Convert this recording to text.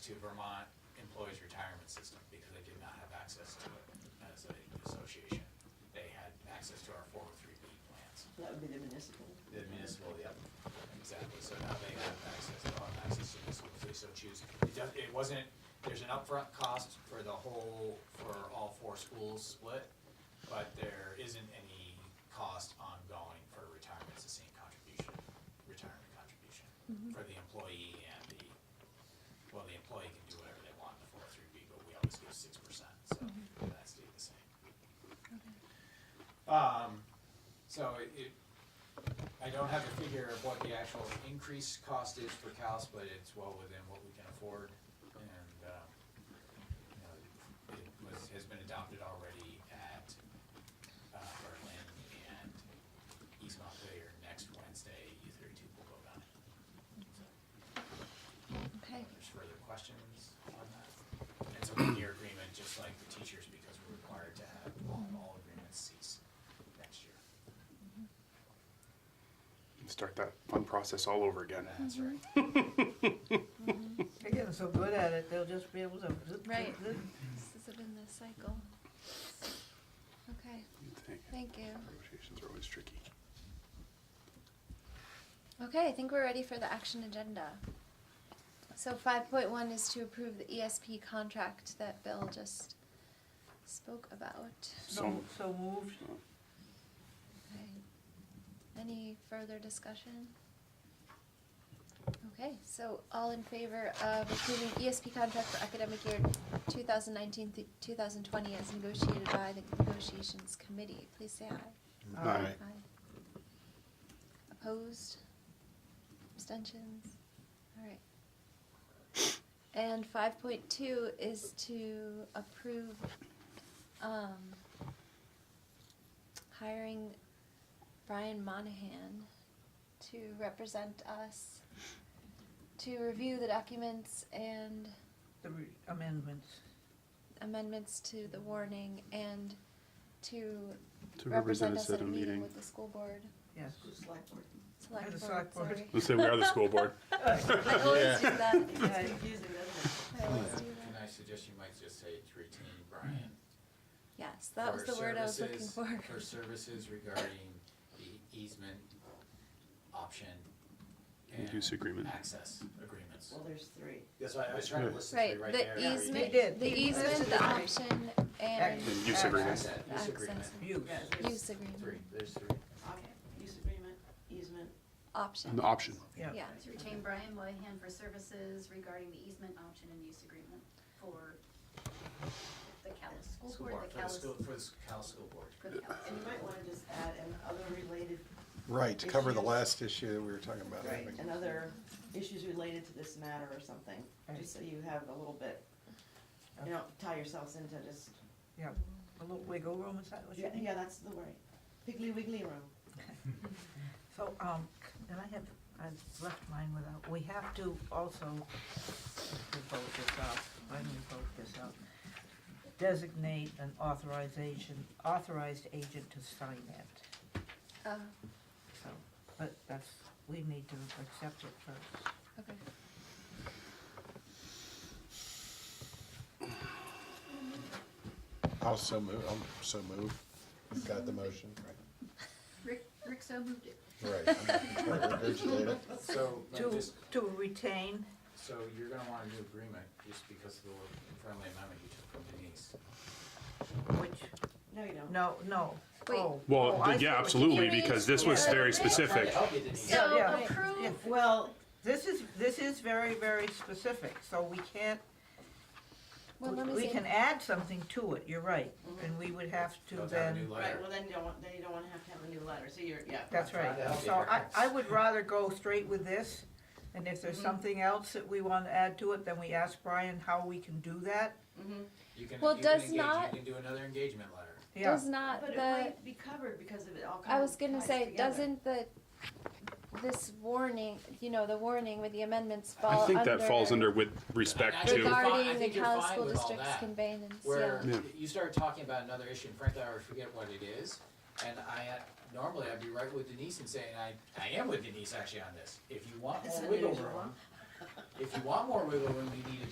to Vermont Employees Retirement System because they did not have access to it as an association. They had access to our 403B plans. That would be the municipal. The municipal, yep, exactly, so now they have access, they have access to this, if they so choose. It does, it wasn't, there's an upfront cost for the whole, for all four schools split, but there isn't any cost ongoing for retirement, it's the same contribution, retirement contribution for the employee and the, well, the employee can do whatever they want in the four oh three B, but we always give six percent, so that stayed the same. Um, so it, it, I don't have a figure of what the actual increase cost is for Cal's, but it's well within what we can afford. And, um, you know, it was, has been adopted already at, uh, Berlin and East Montpelier next Wednesday, U thirty-two will go down. Okay, There's further questions on that. It's a one-year agreement, just like the teachers, because we're required to have all, all agreements cease next year. Start that fun process all over again. That's right. They're getting so good at it, they'll just be able to. zip, Right. zip, zip. this is in the cycle. Okay, You'd think. thank you. Negotiations are always tricky. Okay, I think we're ready for the action agenda. So five point one is to approve the ESP contract that Bill just spoke about. So, So moved. Okay. Any further discussion? Okay, so all in favor of approving ESP contract for academic year 2019 through 2020 as negotiated by the negotiations committee, please say aye. uh, Aye. Aye. Opposed? Abstentions? All right. And five point two is to approve, um, hiring Brian Monahan to represent us, to review the documents and The re- amendments. amendments to the warning and to to represent represent us at a meeting with the school board, Yes. select At the board, select board. sorry. Let's say we are the school board. I always do that, Yeah, it's I always do Can that. I suggest you might just say to retain Brian? Yes, that was for the word I was looking services- for. For services regarding the easement option. And use agreement. Access agreements. Well, there's three. That's why I was trying to Yeah. listen to Right, you right there. the They easement, did. the They easement, listed the it. option, and. And use agreement. Access, Use Access. agreement, Use. Yeah, there's Use agreement, three, there's three. op- use agreement, easement. option. An option. Yeah. Yeah, To retain Brian Moynihan for services regarding the easement option and use agreement for the Callis School School Board, board, for the the Callis, school, for the s- Cal School Board. for the Callis. And you might wanna just add and other related, Right, to cover the Issues. last issue that we were talking about right, having. and other issues related to this matter or something, Right. just so you have a little bit. You don't tie yourselves into just, A little wiggle room, is that what you yeah, mean? yeah, that's the word, piggly wiggly room. So, um, and I have, I've left mine without, we have to also, to vote this out, when we vote this out, designate an authorization, authorized agent to sign it. uh, So, but that's, we need to accept it first. okay. I'll so move, I'm so moved. Got the motion, Rick, Rick so moved it. right? Right. I'm not gonna try to regurgitate it. So, let me To, just- to retain, so you're gonna want a new agreement just because of the friendly amendment you took from Denise. which, No, you don't. no, no, Wait. oh. Well, oh, I see yeah, what you- absolutely, mean. because this was Yeah. very Trying to Trying to specific. help you, Denise. Yeah, So yeah. approve, Well, This is, this is very, very specific, so we can't, Well, let me we see. Mm-hmm. can add something to it, you're right, and we would have to Don't have a new then, letter. right, well, then you don't want, then you don't wanna have to have a new letter, so you're, yeah. that's right. Try to help So you. I, I would rather go straight with this, and if there's Mm-hmm. Mhm. something else that we wanna add to it, then we ask Brian how we can do that. Mm-hmm, You can, you Well, can does engage, you not- can do another engagement letter. Yeah, Does not but it the, might be covered because of it all I kind was of gonna ties say, together. doesn't the, this warning, you know, the warning with the amendments I fall under. think that falls under with respect I think you're to, fine- I Regarding the think you're Cal fine School with all District's that. conveyance, where yeah. Yeah. you started talking about another issue, and frankly, I already forget what it is. And I, uh, normally I'd be right with Denise and saying, I, I am with Denise actually on this. If you want It's more wiggle unusual, room, if you want more wiggle room, you need a